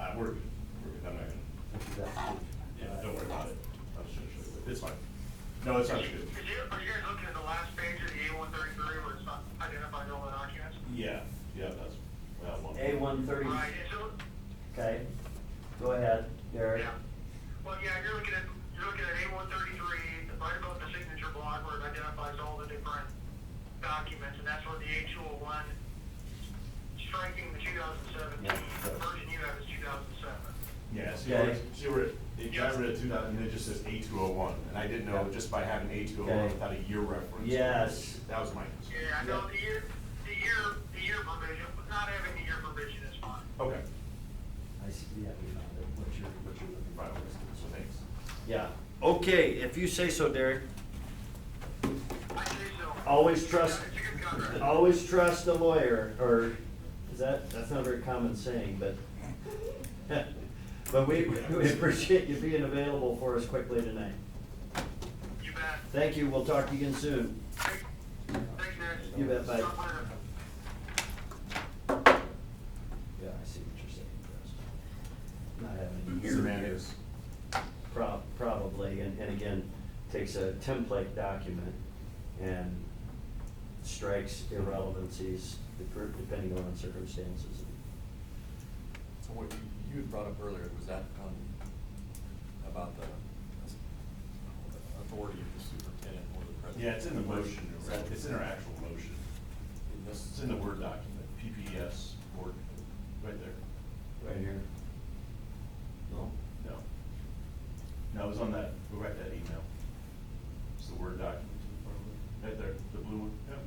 Uh, we're, we're, good. I'm not gonna, yeah, don't worry about it. I was just gonna show you. It's fine. No, it's not good. Could you, are you guys looking at the last page of the A one thirty-three where it's not identified all the documents? Yeah, yeah, that's, well, one. A one thirty, Right, and so, okay, go ahead, Derek. yeah. Well, yeah, you're looking at, you're looking at A one thirty-three, right above the signature block where it identifies all the different documents, and that's where the A two oh one striking the two thousand seventeen, Yeah, so- the version you have is two thousand seven. Yeah, see, where Okay. it's- see where, it- they drive it at two thousand, and it just says A two oh one, and I didn't know, Yeah. just by having A two oh one Okay. without a year reference. Yes. That was my concern. Yeah, I know the year, the year, the year provision, but not having the year provision is fine. Okay, I see, yeah, we found it, what you're, what you're looking right, for. so thanks. Yeah, okay, if you say so, Derek. I say so. Always trust- It's a good contract. Always trust a lawyer, or, is that, that's not a very common saying, but, but we, we appreciate you being available for us quickly tonight. You bet. Thank you, we'll talk to you again soon. Thanks, Nick. You bet, bye. Stop winning. Yeah, I see what you're saying, Chris. Not having a year. Semantics. Prob- Probably, and, and again, takes a template document and strikes irrelevancies dep- depending on circumstances. So what you, you had brought up earlier, was that, um, about the uh, authority of the superintendent or the president? Yeah, it's in the motion, it's in our actual motion. In this- It's in the Word document, PPS Word, right there. Right here. No? No. No, it was on that, go back to that email. It's the Word document. Right there, the blue one. Yep.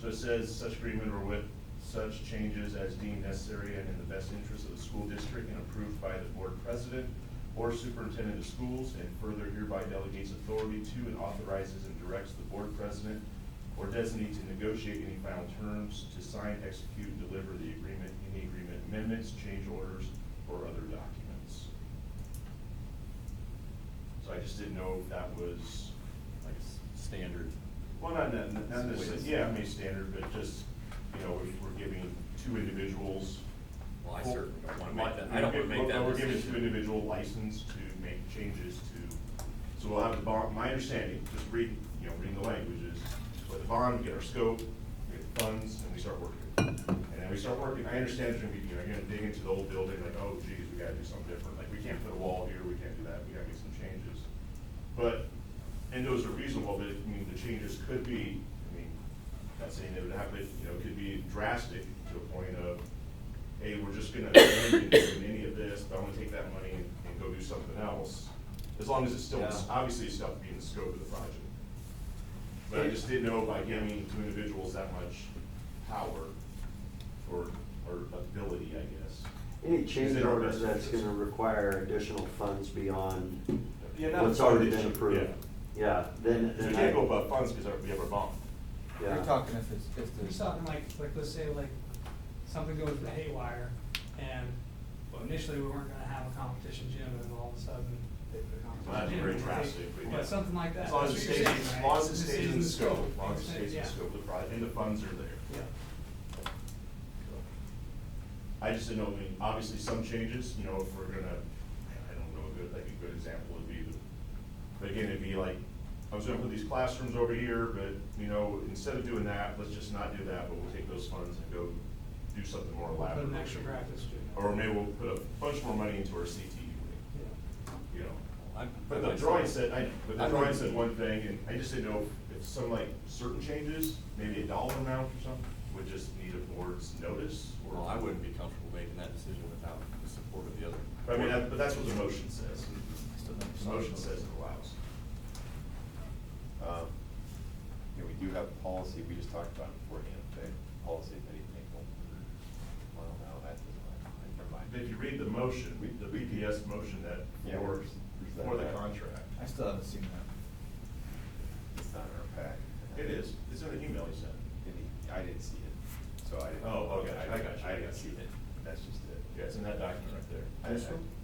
So it says such agreement or with such changes as deemed necessary and in the best interest of the school district and approved by the board president or superintendent of schools and further hereby delegates authority to and authorizes and directs the board president or designee to negotiate any final terms, to sign, execute, and deliver the agreement, any agreement amendments, change orders, or other documents. So I just didn't know if that was, Like s- standard. well, not, not not necessarily, Ways. yeah, I mean, standard, but just, you know, if we're giving two individuals. Well, I certainly don't wanna make that, I don't wanna make Well, that We're giving two decision. individual license to make changes to, so we'll have the bond, my understanding, just reading, you know, reading the language is, with the bond, we get our scope, we get the funds, and we start working. And then we start working, I understand there's gonna be, you know, you're gonna dig into the old building, like, oh geez, we gotta do something different, like, we can't put a wall here, we can't do that, we gotta make some changes. But, and those are reasonable, but, I mean, the changes could be, I mean, not saying it would happen, you know, could be drastic to a point of, hey, we're just gonna abandon doing any of this, but I'm gonna take that money and and go do something else. As long as it's still, Yeah. obviously, it's still being the scope of the project. But I just didn't know by giving two individuals that much power or, or ability, I guess. Any Is change it our order best that's interest? gonna require additional funds beyond Yeah, not what's a fund already been issue, approved. Yeah, then, Yeah. So then I, we can't go above funds because we have our bond. yeah. You're talking if it's, if You're there's. talking like, like, let's say like, something goes to haywire, and well, initially we weren't gonna have a competition gym, and all of a sudden, they put a Well, that'd competition be gym. very in. drastic, but yeah. But something like that. As long as it That's stays, what you're saying, as right? long as it This stays is in the scope, as long as it Yeah. stays in the scope of the project, and the funds are there. Yeah, I just didn't know, I mean, obviously some changes, you know, if we're gonna, I don't know, a good, like a good example would be the, but again, it'd be like, I was gonna put these classrooms over here, but, you know, instead of doing that, let's just not do that, but we'll take those funds and go do something more We'll put elaborate. an extra practice gym. in. Or maybe we'll put a bunch more money into our CTE wing, Yeah. you know? I'm- But the drawing said, I, but the I'm- drawing said one thing, and I just didn't know if some like certain changes, maybe a dollar amount or something, would just need a board's notice, or. Well, I wouldn't be comfortable making that decision without the support of the other. But I mean, that- but that's what the motion says. Still not- The motion says it allows. Um, You know, we do have a policy, we just talked about it beforehand, the policy that he made one. Well, no, oh that doesn't, never mind. If you read the motion, we- the BPS motion that Yeah, for, where's- where's that for the at? contract. I still haven't seen that. It's not in our pack. It is, it's in the email he sent. Did he- I didn't see it, so I didn't. Oh, okay, I got you, I I got didn't you. see it, that's just it. Yeah, it's in that document right there. I- I- This one?